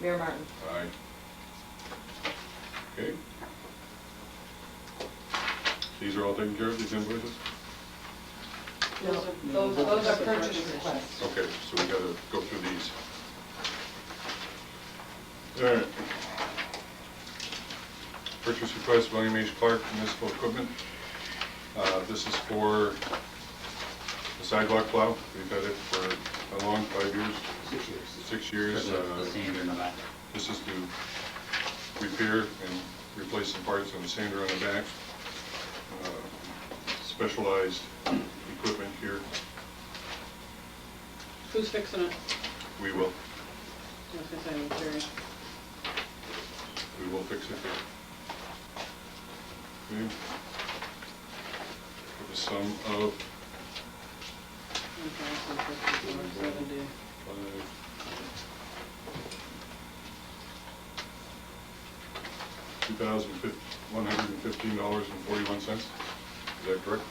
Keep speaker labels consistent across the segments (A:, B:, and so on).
A: Mayor Martin?
B: Aye. Okay. These are all taken care of, these invoices?
A: Those are, those those are purchase requests.
B: Okay, so we gotta go through these. All right. Purchase request, William H. Clark Municipal Equipment. Uh, This is for the sidewalk plow. We've had it for how long, five years?
C: Six years.
B: Six
C: For
B: years.
C: the,
B: uh,
C: the sander in the back.
B: This is to repair and replace some parts on the sander on the back. Uh, Specialized equipment here,
D: Who's fixing it?
B: we will,
D: I was gonna say, I'm curious.
B: we will fix it. Okay. For the sum of
D: One thousand fifty-four seventy.
B: two thousand fifteen, one hundred and fifteen dollars and forty-one cents, is that correct?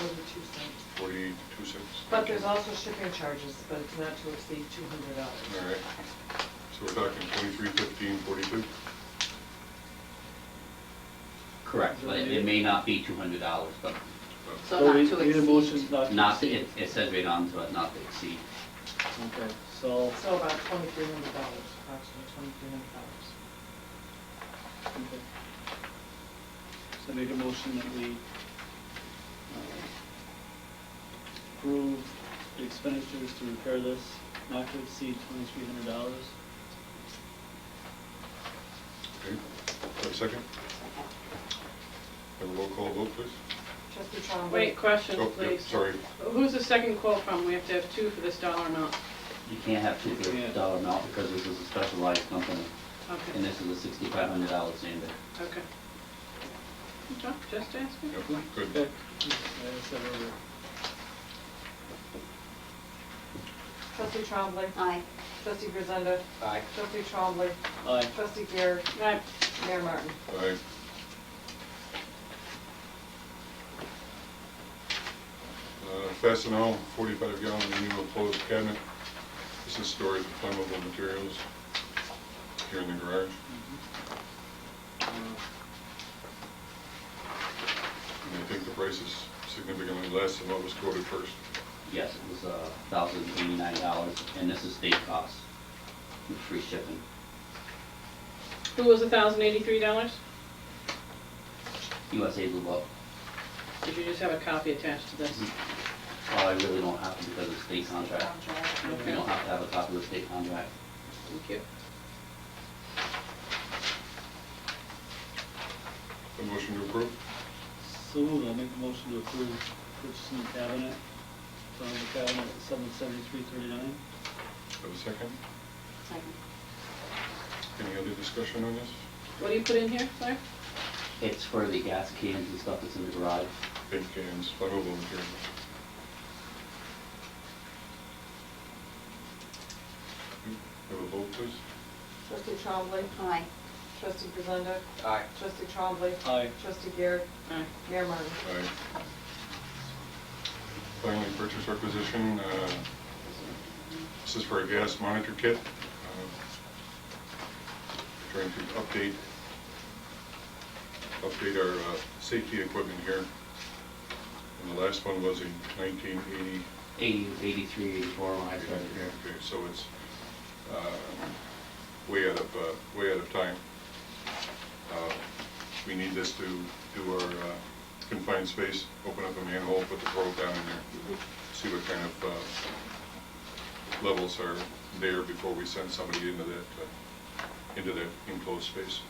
A: Those are two cents.
B: Forty-two cents?
A: But there's also shipping charges, but it's not to exceed two hundred
B: All
A: dollars.
B: right, so we're talking twenty-three fifteen forty-two?
C: Correct, but it it may not be two hundred dollars, but
E: So
F: we
E: not to
F: need a motion
E: exceed.
C: not, to- it, it says right on, but not to exceed.
F: Okay, so,
A: So about twenty-three hundred dollars, approximately twenty-three hundred dollars.
F: okay. So make a motion that we uh, approve the expenditures to repair this, not to exceed twenty-three hundred dollars.
B: Okay, have a second? Have a roll call vote, please?
A: Trustee Trombley?
D: Wait, question,
B: Oh, yeah,
D: please.
B: Sorry,
D: Who's the second quote from? We have to have two for this dollar amount.
C: You can't have two for a
F: Yeah.
C: dollar amount because this is a specialized company, and
D: Okay,
C: this is a sixty-five hundred dollar sander.
D: okay. Okay, Just asking.
B: Yep, good.
F: Okay. I said earlier.
A: Trustee Trombley?
E: Aye.
A: Trustee Grisenda?
C: Aye.
A: Trustee Trombley?
F: Aye.
A: Trustee Garrett?
D: Right,
A: Mayor Martin?
B: Aye. Uh, Fastenal, forty-five gallon manual closed cabinet. This is storage of flammable materials here in the garage.
F: Uh,
B: And I think the price is significantly less than what was quoted first.
C: Yes, it was a thousand eighty-nine dollars, and this is state cost, with free shipping.
D: who was the thousand eighty-three dollars?
C: USA Blue Book,
D: Did you just have a copy attached to this?
F: Mm-hmm.
C: oh, I really don't have to because of state contract. We
D: Okay,
C: don't have to have a copy of the state contract.
D: thank you.
B: A motion to approve?
F: So moved, I'll make a motion to approve purchasing the cabinet, from the cabinet at seven seventy-three thirty-nine.
B: Have a second?
E: Second.
B: Any other discussion on this?
D: What do you put in here, Claire?
C: It's for the gas cans and stuff that's in the garage.
B: Paint cans, flammable materials. Have a vote, please.
A: Trustee Trombley?
E: Aye.
A: Trustee Grisenda?
C: Aye.
A: Trustee Trombley?
F: Aye.
A: Trustee Garrett?
D: Aye.
A: Mayor Martin?
B: Aye. Finally, purchase requisition, uh, this is for a gas monitor kit. uh, Trying to update, update our uh, safety equipment here. And the last one was in 1980.
C: Eighty, eighty-three, eighty-four, when I started here.
B: Okay, so it's uh, way out of, uh, way out of time. Uh, We need this to do our uh, confined space, open up a manhole, put the probe down in there, see what kind of uh, levels are there before we send somebody into that, uh, into that enclosed space.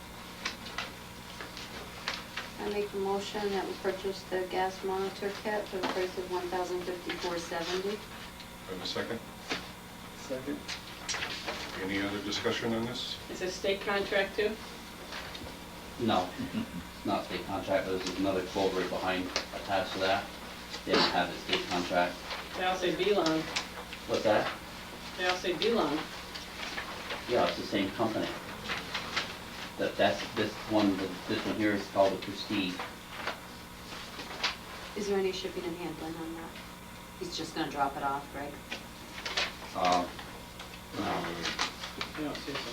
E: I make a motion that we purchase the gas monitor kit for the price of one thousand fifty-four seventy.
B: Have a second?
F: Second.
B: Any other discussion on this?
D: Is this state contract too?
C: No, it's not state contract, but there's another quote right behind attached to that. They don't have the state contract.
D: They all say B-Long.
C: What's that?
D: They all say B-Long.
C: Yeah, it's the same company. That, that's, this one, this one here is called the Prestige.
E: Is there any shipping and handling on that? He's just gonna drop it off, right?
C: Uh, no.
D: You don't see it.